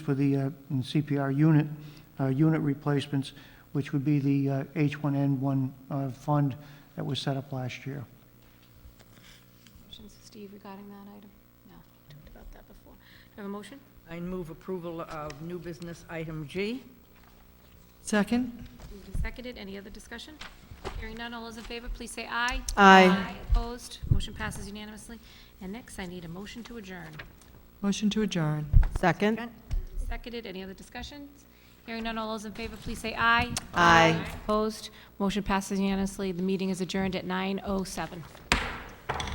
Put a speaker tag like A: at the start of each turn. A: for the uh, in CPR unit, uh, unit replacements, which would be the uh, H1N1 uh, fund that was set up last year.
B: Questions, Steve, regarding that item? No, we talked about that before. Do I have a motion?
C: I move approval of new business item G.
D: Second?
B: Moved and seconded. Any other discussion? Hearing none, all those in favor, please say aye.
D: Aye.
B: Opposed? Motion passes unanimously. And next, I need a motion to adjourn.
D: Motion to adjourn.
E: Second?
B: Seconded. Any other discussions? Hearing none, all those in favor, please say aye.
E: Aye.
B: oh Opposed? Motion passes unanimously. The meeting is adjourned at 9:07.